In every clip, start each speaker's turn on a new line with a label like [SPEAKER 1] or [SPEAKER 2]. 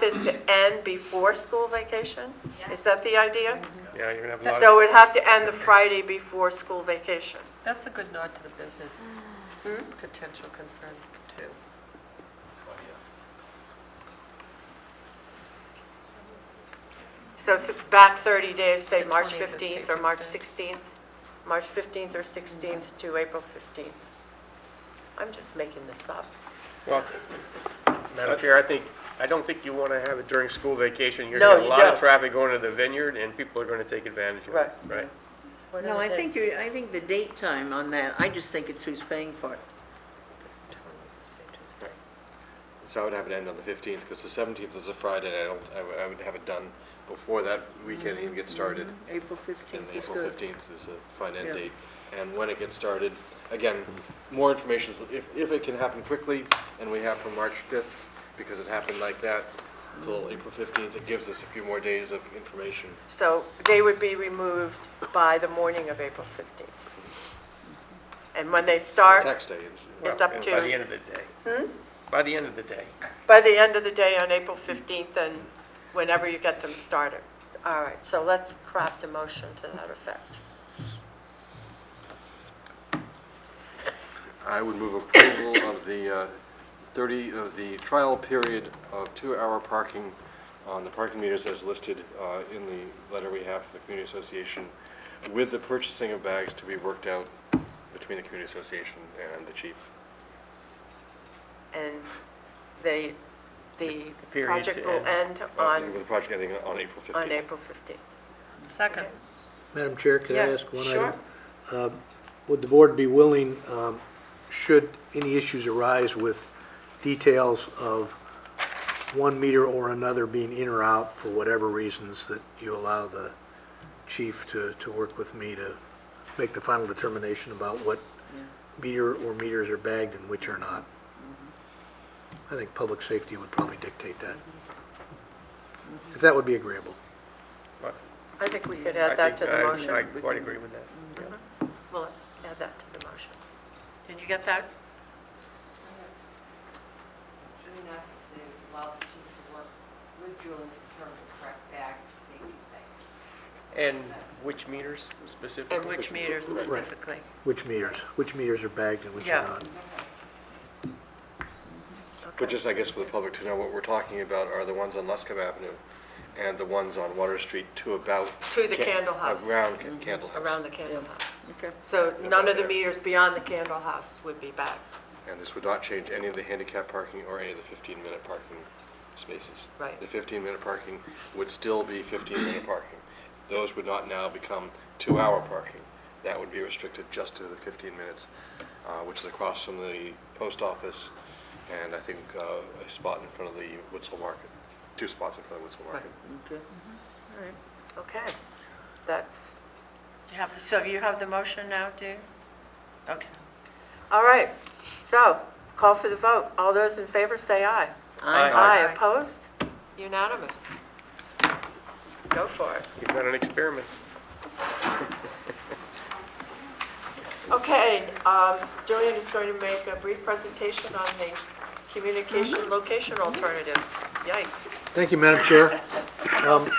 [SPEAKER 1] this to end before school vacation? Is that the idea?
[SPEAKER 2] Yeah, you're gonna have a lot of.
[SPEAKER 1] So it would have to end the Friday before school vacation.
[SPEAKER 3] That's a good nod to the business potential concerns too.
[SPEAKER 1] So th- back 30 days, say
[SPEAKER 3] The
[SPEAKER 1] March
[SPEAKER 3] 20th is
[SPEAKER 1] 15th or March
[SPEAKER 3] Patriots
[SPEAKER 1] 16th, March 15th or 16th to April 15th. I'm just making this up.
[SPEAKER 2] Well, Madam Chair, I think, I don't think you want to have it during school vacation. You're
[SPEAKER 1] No,
[SPEAKER 2] going to
[SPEAKER 1] you
[SPEAKER 2] have a lot
[SPEAKER 1] don't.
[SPEAKER 2] of traffic going to the vineyard, and people are going to take advantage of
[SPEAKER 1] Right.
[SPEAKER 2] it, right?
[SPEAKER 1] What
[SPEAKER 4] No,
[SPEAKER 1] are
[SPEAKER 4] I
[SPEAKER 1] the
[SPEAKER 4] think,
[SPEAKER 1] dates?
[SPEAKER 4] you- I think the date time on that, I just think it's who's paying for it.
[SPEAKER 5] So I would have it end on the 15th, because the 17th is a Friday, and I don't, I would- I would have it done before that weekend even gets started.
[SPEAKER 4] April
[SPEAKER 5] And
[SPEAKER 4] 15th Mm-hmm. is
[SPEAKER 5] April
[SPEAKER 4] good.
[SPEAKER 5] 15th is a fine end
[SPEAKER 4] Yeah.
[SPEAKER 5] date. And when it gets started, again, more information, is- if, if it can happen quickly, and we have from March 5th, because it happened like that, till April 15th, it gives us a few more days of information.
[SPEAKER 1] So they would be removed by the morning of April 15th. And when they start,
[SPEAKER 5] Tax day is.
[SPEAKER 1] It's
[SPEAKER 2] Well,
[SPEAKER 1] up
[SPEAKER 2] and
[SPEAKER 1] to-
[SPEAKER 2] By the end of the day.
[SPEAKER 1] Hmm?
[SPEAKER 2] By the end of the day.
[SPEAKER 1] by the end of the day on April 15th and whenever you get them started. All right, so let's craft a motion to that effect.
[SPEAKER 5] I would move approval of the uh, 30, of the trial period of two-hour parking on the parking meters as listed uh, in the letter we have from the Community Association, with the purchasing of bags to be worked out between the Community Association and the chief.
[SPEAKER 1] And the, the
[SPEAKER 2] The period
[SPEAKER 1] project
[SPEAKER 2] to
[SPEAKER 1] will
[SPEAKER 2] end. Oh,
[SPEAKER 1] end
[SPEAKER 5] Uh, With
[SPEAKER 1] on,
[SPEAKER 5] the project ending on April 15th.
[SPEAKER 1] on April 15th.
[SPEAKER 3] Second,
[SPEAKER 6] Madam Chair, could I
[SPEAKER 1] Yes,
[SPEAKER 6] ask one item?
[SPEAKER 1] sure.
[SPEAKER 6] Would the board be willing, um, should any issues arise with details of one meter or another being in or out for whatever reasons, that you allow the chief to, to work with me to make the final determination about what meter or meters are bagged and which are not? I think public safety would probably dictate that. If that would be agreeable.
[SPEAKER 2] But
[SPEAKER 1] I think we could
[SPEAKER 2] I
[SPEAKER 1] add that to
[SPEAKER 2] think
[SPEAKER 1] the
[SPEAKER 2] I-
[SPEAKER 1] motion.
[SPEAKER 2] I quite agree with that.
[SPEAKER 1] We'll add that to the motion. Did you get that?
[SPEAKER 7] Should we not allow the chief to work with Julie to determine the correct bag for safety's sake?
[SPEAKER 2] And which meters
[SPEAKER 1] And
[SPEAKER 2] specifically?
[SPEAKER 1] which meter specifically?
[SPEAKER 6] Which meters, which meters are bagged and which
[SPEAKER 1] Yeah.
[SPEAKER 6] are not?
[SPEAKER 5] But just, I guess, for the public to know, what we're talking about are the ones on Luscombe Avenue and the ones on Water Street to about.
[SPEAKER 1] To the
[SPEAKER 5] Ca-
[SPEAKER 1] Candle House. Mm-hmm.
[SPEAKER 5] Around Ca- Candle House.
[SPEAKER 1] Around the Candle House.
[SPEAKER 4] Okay.
[SPEAKER 1] So none of the
[SPEAKER 5] there.
[SPEAKER 1] meters beyond the Candle House would be bagged.
[SPEAKER 5] And this would not change any of the handicap parking or any of the 15-minute parking spaces.
[SPEAKER 1] Right.
[SPEAKER 5] The 15-minute parking would still be 15-minute parking. Those would not now become two-hour parking. That would be restricted just to the 15 minutes, uh, which is across from the post office and I think uh, a spot in front of the Woodsell Market, two spots in front of the Woodsell Market.
[SPEAKER 4] Okay.
[SPEAKER 1] Okay, that's, you have, so you have the motion now, do you? Okay. All right, so, call for the vote. All those in favor say aye.
[SPEAKER 2] Aye.
[SPEAKER 1] Aye, opposed? Unanimous. Go for it.
[SPEAKER 2] You've got an experiment.
[SPEAKER 1] Okay, um, Julian is going to make a brief presentation on the communication location alternatives. Yikes.
[SPEAKER 6] Thank you, Madam Chair. Um,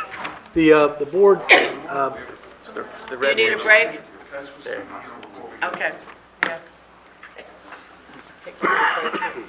[SPEAKER 6] The, uh, the board, uh,
[SPEAKER 2] It's the it's the
[SPEAKER 1] You
[SPEAKER 2] red
[SPEAKER 1] need a
[SPEAKER 2] wings.
[SPEAKER 1] break?
[SPEAKER 2] There.
[SPEAKER 1] Okay, yeah. Take your break.